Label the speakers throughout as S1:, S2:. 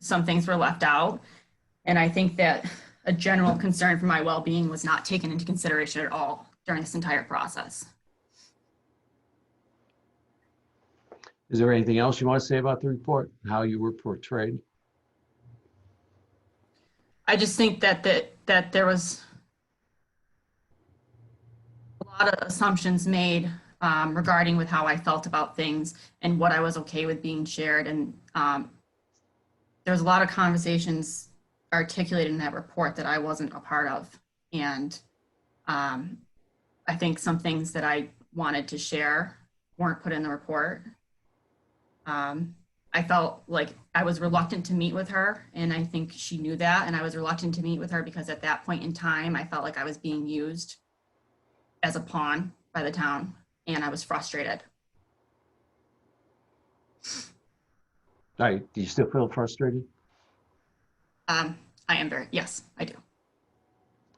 S1: some things were left out. And I think that a general concern for my well-being was not taken into consideration at all during this entire process.
S2: Is there anything else you want to say about the report, how you were portrayed?
S1: I just think that that that there was a lot of assumptions made um, regarding with how I felt about things and what I was okay with being shared, and um, there was a lot of conversations articulated in that report that I wasn't a part of, and um, I think some things that I wanted to share weren't put in the report. Um, I felt like I was reluctant to meet with her, and I think she knew that. And I was reluctant to meet with her because at that point in time, I felt like I was being used as a pawn by the town, and I was frustrated.
S2: All right, do you still feel frustrated?
S1: Um, I am very yes, I do.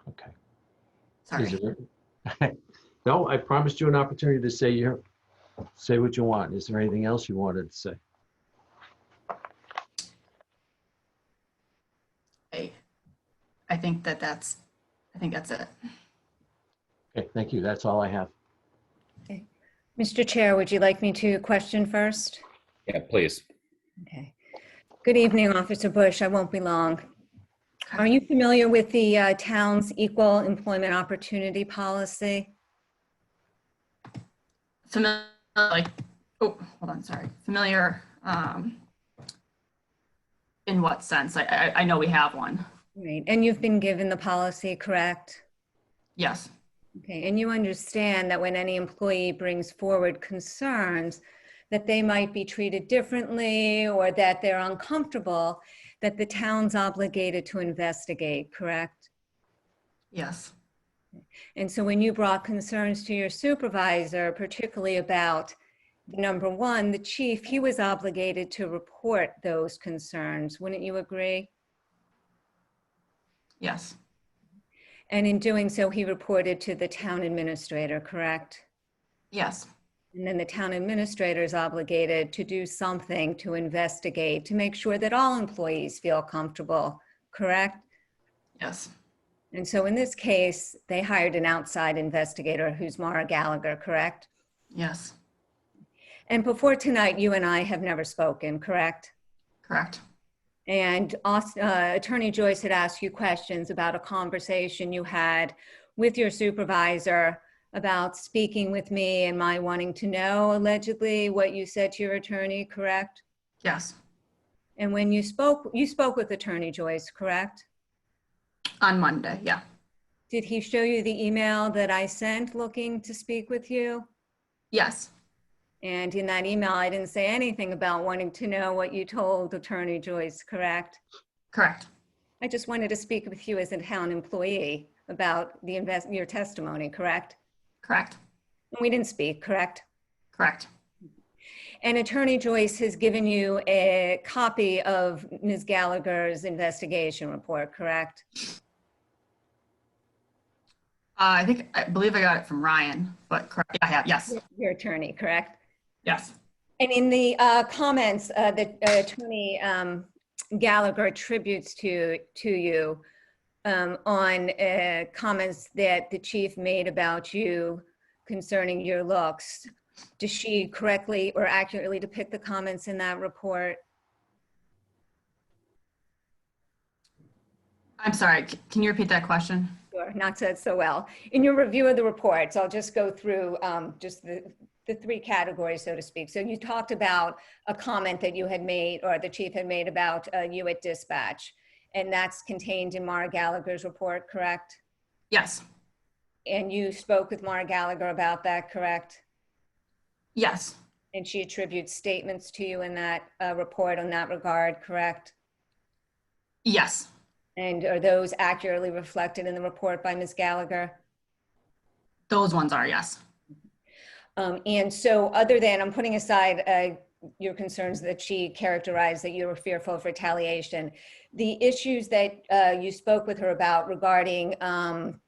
S2: Okay.
S1: Sorry.
S2: Is there- No, I promised you an opportunity to say your, say what you want. Is there anything else you wanted to say?
S1: I, I think that that's, I think that's it.
S2: Okay, thank you. That's all I have.
S3: Mr. Chair, would you like me to question first?
S4: Yeah, please.
S3: Okay. Good evening, Officer Bush. I won't be long. Are you familiar with the uh, town's equal employment opportunity policy?
S1: Familiar, like, oh, hold on, sorry. Familiar. Um, in what sense? I, I, I know we have one.
S3: Right, and you've been given the policy, correct?
S1: Yes.
S3: Okay, and you understand that when any employee brings forward concerns that they might be treated differently or that they're uncomfortable, that the town's obligated to investigate, correct?
S1: Yes.
S3: And so when you brought concerns to your supervisor, particularly about number one, the chief, he was obligated to report those concerns. Wouldn't you agree?
S1: Yes.
S3: And in doing so, he reported to the town administrator, correct?
S1: Yes.
S3: And then the town administrator is obligated to do something to investigate, to make sure that all employees feel comfortable, correct?
S1: Yes.
S3: And so in this case, they hired an outside investigator who's Mara Gallagher, correct?
S1: Yes.
S3: And before tonight, you and I have never spoken, correct?
S1: Correct.
S3: And Aus- uh, Attorney Joyce had asked you questions about a conversation you had with your supervisor about speaking with me and my wanting to know allegedly what you said to your attorney, correct?
S1: Yes.
S3: And when you spoke, you spoke with Attorney Joyce, correct?
S1: On Monday. Yeah.
S3: Did he show you the email that I sent looking to speak with you?
S1: Yes.
S3: And in that email, I didn't say anything about wanting to know what you told Attorney Joyce, correct?
S1: Correct.
S3: I just wanted to speak with you as a town employee about the invest, your testimony, correct?
S1: Correct.
S3: And we didn't speak, correct?
S1: Correct.
S3: And Attorney Joyce has given you a copy of Ms. Gallagher's investigation report, correct?
S1: Uh, I think I believe I got it from Ryan, but correct. Yeah, I have. Yes.
S3: Your attorney, correct?
S1: Yes.
S3: And in the uh, comments uh, that uh, Attorney um, Gallagher attributes to, to you um, on uh, comments that the chief made about you concerning your looks, does she correctly or accurately depict the comments in that report?
S1: I'm sorry. c- Can you repeat that question?
S3: Sure, not said so well. In your review of the reports, I'll just go through um, just the, the three categories, so to speak. So you talked about a comment that you had made, or the chief had made about uh, you at dispatch, and that's contained in Mara Gallagher's report, correct?
S1: Yes.
S3: And you spoke with Mara Gallagher about that, correct?
S1: Yes.
S3: And she attributes statements to you in that uh, report on that regard, correct?
S1: Yes.
S3: And are those accurately reflected in the report by Ms. Gallagher?
S1: Those ones are yes.
S3: Um, and so other than, I'm putting aside, uh, your concerns that she characterized that you were fearful of retaliation, the issues that, uh, you spoke with her about regarding, um,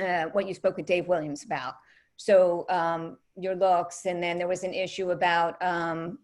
S3: uh, what you spoke with Dave Williams about. So, um, your looks, and then there was an issue about, um,